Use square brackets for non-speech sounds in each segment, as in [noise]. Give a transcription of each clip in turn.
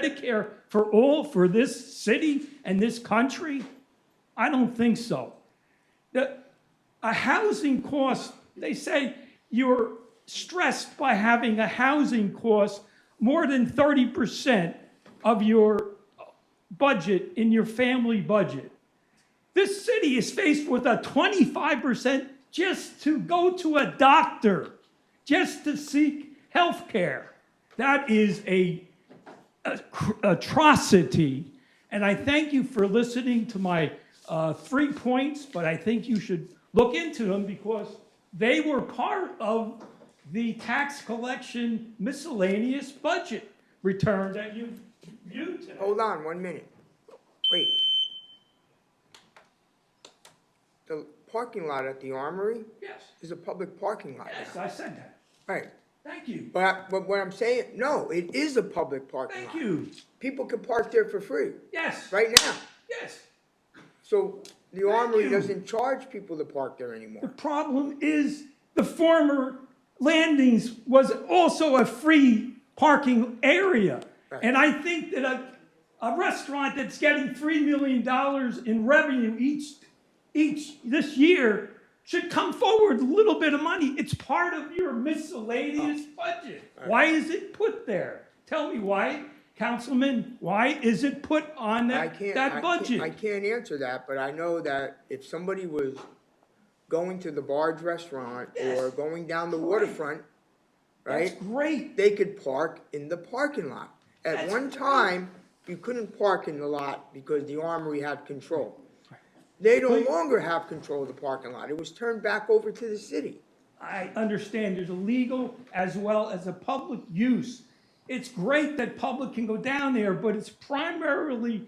Medicare for all for this city and this country? I don't think so. The, a housing cost, they say you're stressed by having a housing cost more than 30% of your budget in your family budget. This city is faced with a 25% just to go to a doctor, just to seek health care. That is a cr- atrocity. And I thank you for listening to my uh, three points, but I think you should look into them because they were part of the tax collection miscellaneous budget return that you viewed today. Hold on, one minute. Wait. The parking lot at the Armory Yes, is a public parking lot yes, now. I said that. Right, Thank you. but, but what I'm saying, no, it is a public parking Thank lot. you. People can park there for free, Yes, right now. yes. So the Armory you. doesn't charge people to park [laughs] there anymore. problem is the former landings was also a free parking area. And I think that a, a restaurant that's getting $3 million in revenue each, each this year should come forward with a little bit of money. It's part of your miscellaneous Oh. budget. Why is it put there? Tell me why, Councilman, why is it put on I that, can't, I that can't, I budget? can't answer that, but I know that if somebody was going to the Barge Restaurant or Yes. going down the waterfront, right? That's great. they could park in the parking lot. At That's one right. time, you couldn't park in the lot because the armory had control. They no But- longer have control of the parking lot. It was turned back over to the city. I understand there's a legal as well as a public use. It's great that public can go down there, but it's primarily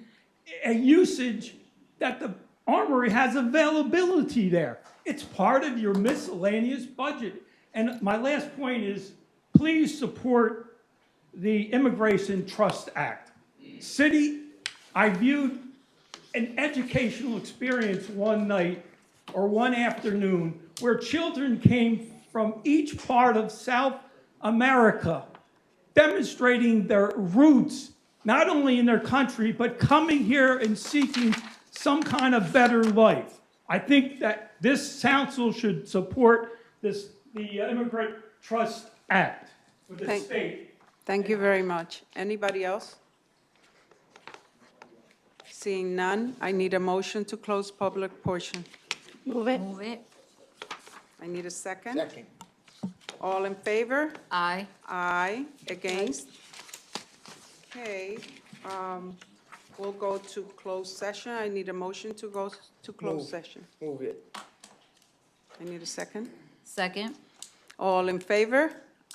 a usage that the armory has availability there. It's part of your miscellaneous budget. And my last point is, please support the Immigration Trust Act. City, I viewed an educational experience one night or one afternoon where children came from each part of South America demonstrating their roots, not only in their country, but coming here and seeking some kind of better life. I think that this council should support this, the Immigrant Trust Act with the Thank- state. Thank you very much. Anybody else? Seeing none, I need a motion to close public portion. Move it. Move it. I need a second. Second, All in favor? Aye. Aye. Against? Okay, um, we'll go to closed session. I need a motion to go s- to closed Move. session. move it. I need a second. Second. All in favor?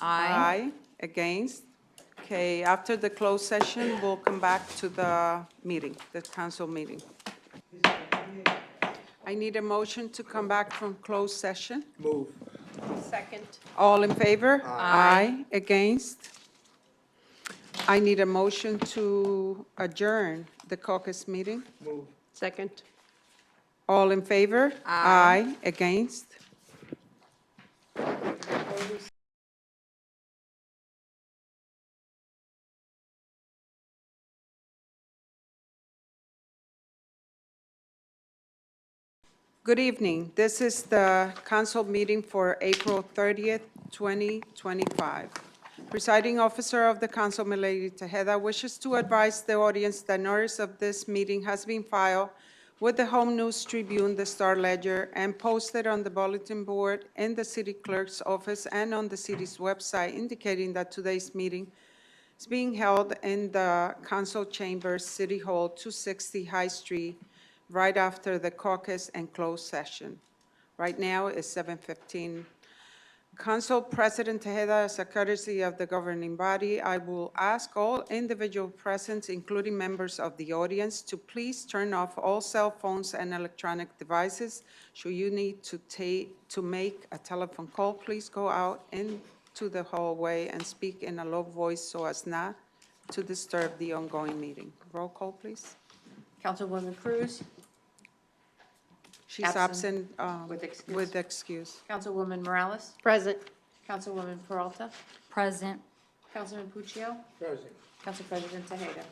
Aye. Aye. Against? Okay, after the closed session, we'll come back to the meeting, the council meeting. I need a motion to come back from closed session. Move. Second. All in favor? Aye. Against? I need a motion to adjourn the caucus meeting. Second. All in favor? Aye. Against? Good evening. This is the council meeting for April 30th, 2025. Presiding officer of the council, Milady Tejeda, wishes to advise the audience that notice of this meeting has been filed with the Home News Tribune, the Star Ledger, and posted on the bulletin board in the city clerk's office and on the city's website indicating that today's meeting is being held in the council chamber, City Hall, 260 High Street, right after the caucus and closed session. Right now it's 7:15. Council President Tejeda, as a courtesy of the governing body, I will ask all individual present, including members of the audience, to please turn off all cell phones and electronic devices. Should you need to ta, to make a telephone call, please go out into the hallway and speak in a low voice so as not to disturb the ongoing meeting. Roll call, please. Councilwoman Cruz, She's absent, Absent. um, With excuse. with excuse. Councilwoman Morales. Present. Councilwoman Peralta, Present. Councilman Puccio, Present. Council President Tejeda.